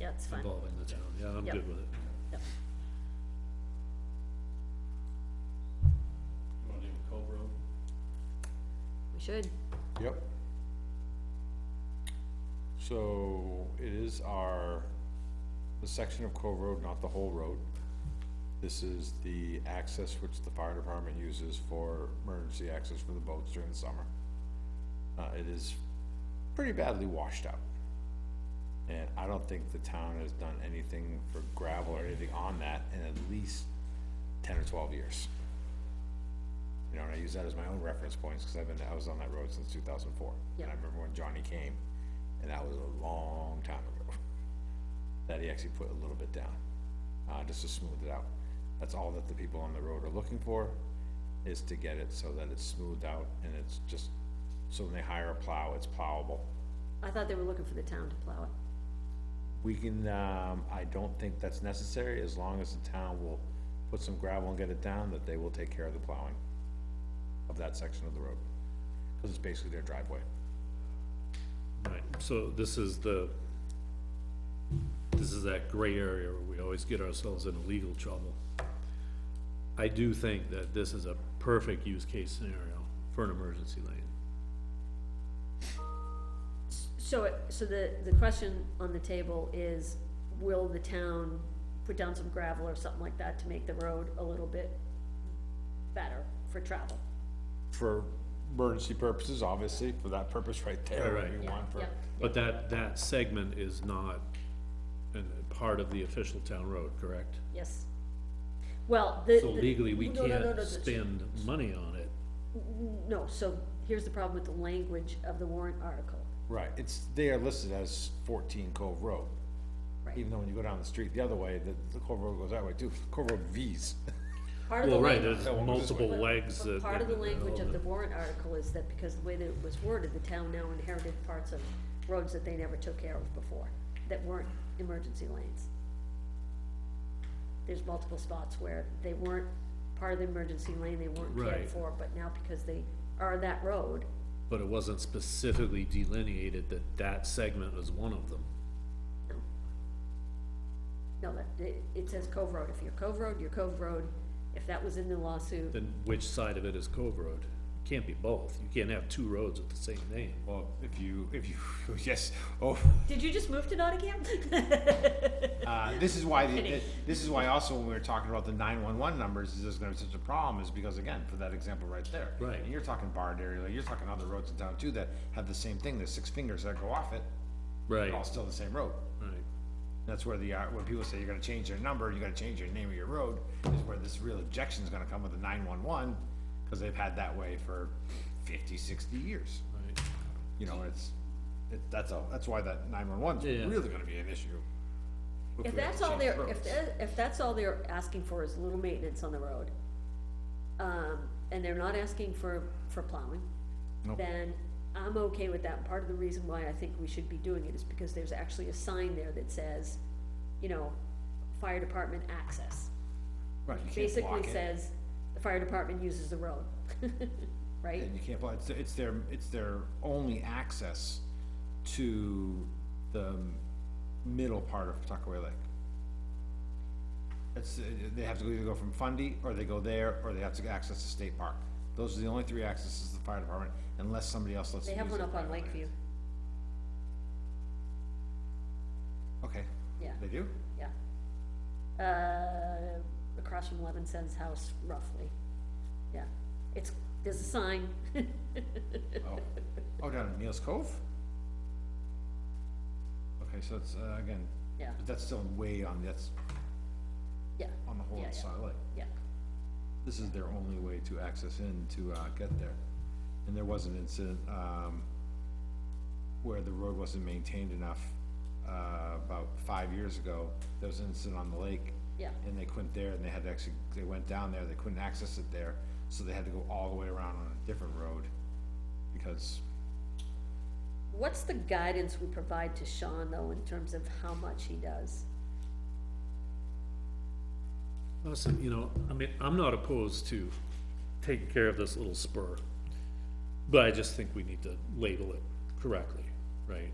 that's fine. involving the town, yeah, I'm Yep. good with it. Yep. Want to do Cove Road? We should, Yep. So it is our, the section of Cove Road, not the whole road. This is the access which the fire department uses for emergency access for the boats during the summer. Uh, it is pretty badly washed out. And I don't think the town has done anything for gravel or anything on that in at least ten or twelve years. You know, and I use that as my own reference points, cause I've been, I was on that road since two thousand four. And I Yeah. remember when Johnny came, and that was a long time ago, that he actually put a little bit down, uh, just to smooth it out. That's all that the people on the road are looking for, is to get it so that it's smoothed out and it's just, so when they hire a plow, it's plowable. I thought they were looking for the town to plow it. We can, um, I don't think that's necessary, as long as the town will put some gravel and get it down, that they will take care of the plowing of that section of the road, cause it's basically their driveway. Right, so this is the, this is that gray area where we always get ourselves into legal trouble. I do think that this is a perfect use case scenario for an emergency lane. So, it- so the, the question on the table is, will the town put down some gravel or something like that to make the road a little bit better for travel? For emergency purposes, obviously, for that purpose right there, Right, right. we Yeah, want for, yeah. But that, that segment is not an- part of the official town road, correct? Yes. Well, the. So the- legally, we no, no, no, can't no, spend money on it. No, so here's the problem with the language of the warrant article. right, it's, they are listed as fourteen Cove Road. Right. Even though when you go down the street the other way, the, the Cove Road goes that way too, Cove Road V's. Part of the Well, right, language- there's That one was this multiple way. legs But that. Part of the that- language of the warrant article is that because the way that it was worded, the town now inherited parts of roads that they never took care of before, that weren't emergency lanes. There's multiple spots where they weren't part of the emergency lane, they weren't Right. cared for, but now because they are that road, But it wasn't specifically delineated that that segment was one of them. no. No, that, it, it says Cove Road, if you're Cove Road, you're Cove Road, if that was in the lawsuit, Then which side of it is Cove Road? Can't be both. You can't have two roads with the same name. Well, if you, if you, yes, oh, did you just move to Nottingham? Uh, this is why, the- the- this is why also when we were talking about the nine-one-one numbers, is there's gonna be such a problem, is because again, for that example right there. Right. And you're talking Bard area, like, you're talking other roads in town too that have the same thing, there's six fingers that go off it, Right, they're all still the same road. right. That's where the, uh, when people say you're gonna change your number, you gotta change your name of your road, is where this real objection's gonna come with the nine-one-one, cause they've had that way for 50, 60 years. Right. You know, it's, it, that's all, that's why that nine-one-one's Yeah. really gonna be an issue. If we have that's to all change they're, roads. if, that- if that's all they're asking for is a little maintenance on the road, um, and they're not asking for, for plowing, Nope. then I'm okay with that. Part of the reason why I think we should be doing it is because there's actually a sign there that says, you know, fire department access. Right, you can't Basically block it. says, the fire department uses the road, right? And you can't, apply- it's, it's their, it's their only access to the middle part of Tuckaway Lake. It's, uh, they have to either go from Fundy, or they go there, or they have to access the state park. Those are the only three accesses to the fire department, unless somebody else lets They them have use one their up on private land. Lakeview, Okay, yeah, they do? yeah. Uh, across from Levinson's house roughly, yeah. It's, there's a sign, Oh, oh, down at Neil's Cove? Okay, so it's, uh, again, yeah, but that's still way on, that's yeah, on the whole Yeah, yeah. side of the lake. yeah. this is their only way to access in to, uh, get there. And there was an incident, um, where the road wasn't maintained enough, uh, about five years ago. There was an incident on the lake. Yeah. And they couldn't there, and they had to actually, they went down there, they couldn't access it there, so they had to go all the way around on a different road. Because What's the guidance we provide to Sean, though, in terms of how much he does? Listen, you know, I mean, I'm not opposed to taking care of this little spur. But I just think we need to label it correctly, right?